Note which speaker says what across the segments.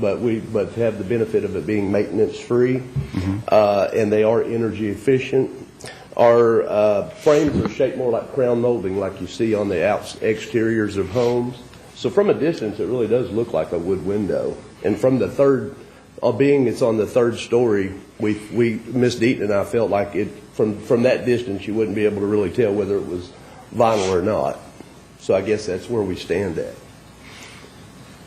Speaker 1: but we, but have the benefit of it being maintenance-free, uh, and they are energy efficient. Our uh, frames are shaped more like crown molding, like you see on the outs- exteriors of homes. So from a distance, it really does look like a wood window. And from the third, uh, being it's on the third story, we, we, Ms. Deaton and I felt like it, from, from that distance, you wouldn't be able to really tell whether it was vinyl or not. So I guess that's where we stand at.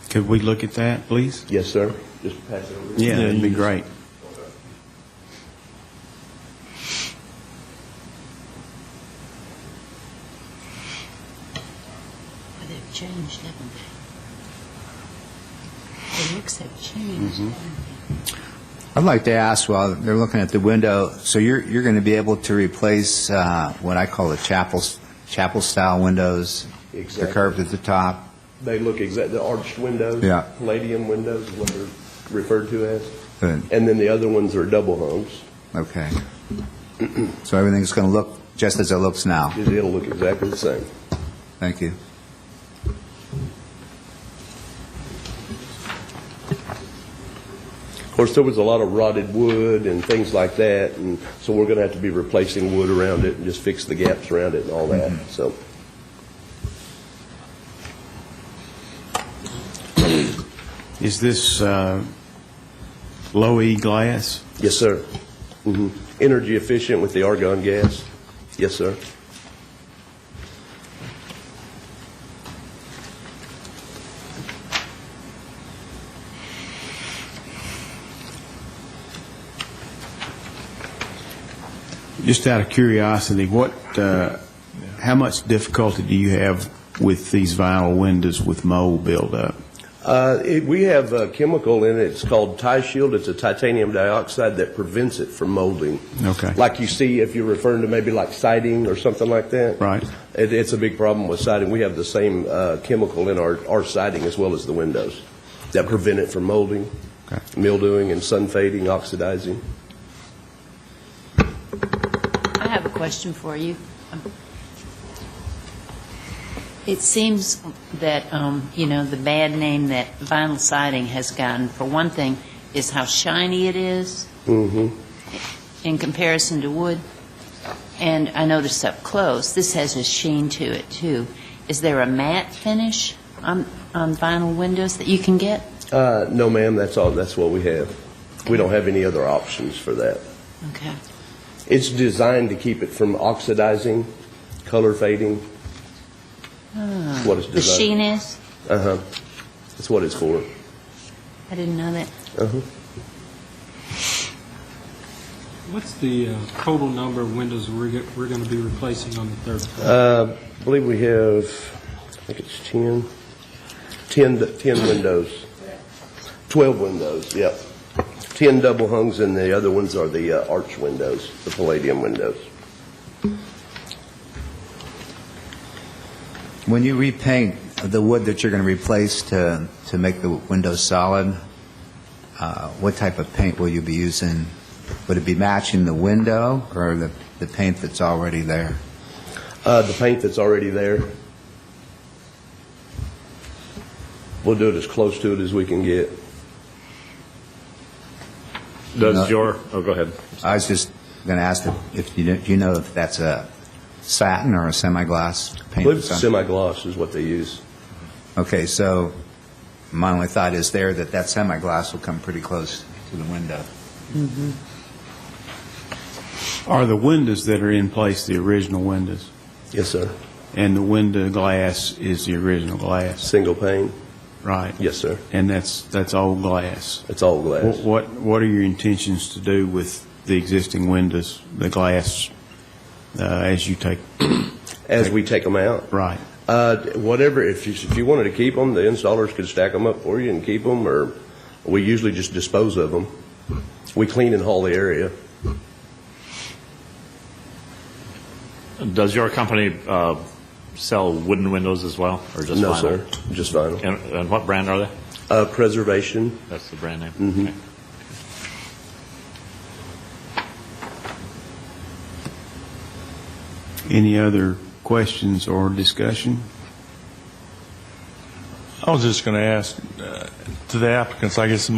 Speaker 2: Could we look at that, please?
Speaker 1: Yes, sir? Just pass it over.
Speaker 2: Yeah, that'd be great.
Speaker 3: Well, they've changed, haven't they? The looks have changed.
Speaker 4: I'd like to ask, while they're looking at the window, so you're, you're going to be able to replace uh, what I call the chapel, chapel-style windows?
Speaker 1: Exactly.
Speaker 4: They're curved at the top?
Speaker 1: They look exact, the arched windows.
Speaker 4: Yeah.
Speaker 1: Palladium windows is what they're referred to as.
Speaker 4: Good.
Speaker 1: And then the other ones are double hungs.
Speaker 4: Okay. So everything's going to look just as it looks now?
Speaker 1: It- It'll look exactly the same.
Speaker 4: Thank you.
Speaker 1: Of course, there was a lot of rotted wood and things like that, and so we're going to have to be replacing wood around it and just fix the gaps around it and all that, so.
Speaker 2: Is this uh, low E glass?
Speaker 1: Yes, sir. Mhm. Energy efficient with the argon gas. Yes, sir.
Speaker 2: Just out of curiosity, what, uh, how much difficulty do you have with these vinyl windows with mold buildup?
Speaker 1: Uh, it- We have a chemical in it, it's called Tie Shield, it's a titanium dioxide that prevents it from molding.
Speaker 2: Okay.
Speaker 1: Like you see, if you're referring to maybe like siding or something like that.
Speaker 2: Right.
Speaker 1: It- It's a big problem with siding. We have the same uh, chemical in our our siding as well as the windows that prevent it from molding,
Speaker 2: Okay.
Speaker 1: mildewing, and sun fading, oxidizing.
Speaker 3: I have a question for you. Um, It seems that, um, you know, the bad name that vinyl siding has gotten, for one thing, is how shiny it is
Speaker 1: Mm-hmm.
Speaker 3: in comparison to wood. And I noticed up close, this has a sheen to it, too. Is there a matte finish on on vinyl windows that you can get?
Speaker 1: Uh, No, ma'am, that's all, that's what we have. We don't have any other options for that.
Speaker 3: Okay.
Speaker 1: It's designed to keep it from oxidizing, color fading. That's what it's
Speaker 3: The sheen
Speaker 1: designed.
Speaker 3: is?
Speaker 1: Uh-huh. That's what it's for.
Speaker 3: I didn't know that.
Speaker 1: Uh-huh.
Speaker 5: What's the uh, total number of windows we're going to be replacing on the third floor?
Speaker 1: Uh, I believe we have, I think it's 10, 10, d- 10 windows. 12 windows, yep. 10 double hungs, and the other ones are the uh, arch windows, the palladium windows.
Speaker 4: When you repaint the wood that you're going to replace to, to make the windows solid, uh, what type of paint will you be using? Would it be matching the window or the, the paint that's already there?
Speaker 1: Uh, The paint that's already there, we'll do it as close to it as we can get.
Speaker 4: No.
Speaker 6: Does your, oh, go ahead.
Speaker 4: I was just going to ask if- if you, know- do you know if that's a satin or a semi-gloss
Speaker 1: I
Speaker 4: paint?
Speaker 1: believe
Speaker 4: that's on-
Speaker 1: semi-gloss is what they use.
Speaker 4: Okay, so my only thought is there that that semi-gloss will come pretty close to the window.
Speaker 2: Are the windows that are in place the original windows?
Speaker 1: Yes, sir.
Speaker 2: And the window glass is the original glass,
Speaker 1: Single pane.
Speaker 2: right?
Speaker 1: Yes, sir.
Speaker 2: And that's, that's old glass?
Speaker 1: It's all
Speaker 2: What-
Speaker 1: glass.
Speaker 2: What, what are your intentions to do with the existing windows, the glass, uh, as you take,
Speaker 1: As we take them out,
Speaker 2: right?
Speaker 1: Uh, whatever, if you, if you wanted to keep them, the installers could stack them up for you and keep them, or we usually just dispose of them. We clean and haul the area.
Speaker 6: Does your company uh, sell wooden windows as well, or just vinyl?
Speaker 1: No, sir, just vinyl.
Speaker 6: And and what brand are they?
Speaker 1: Uh, Preservation,
Speaker 6: That's the brand name?
Speaker 1: Mm-hmm.
Speaker 6: Okay.
Speaker 2: Any other questions or discussion?
Speaker 7: I was just going to ask, uh, to the applicants, I guess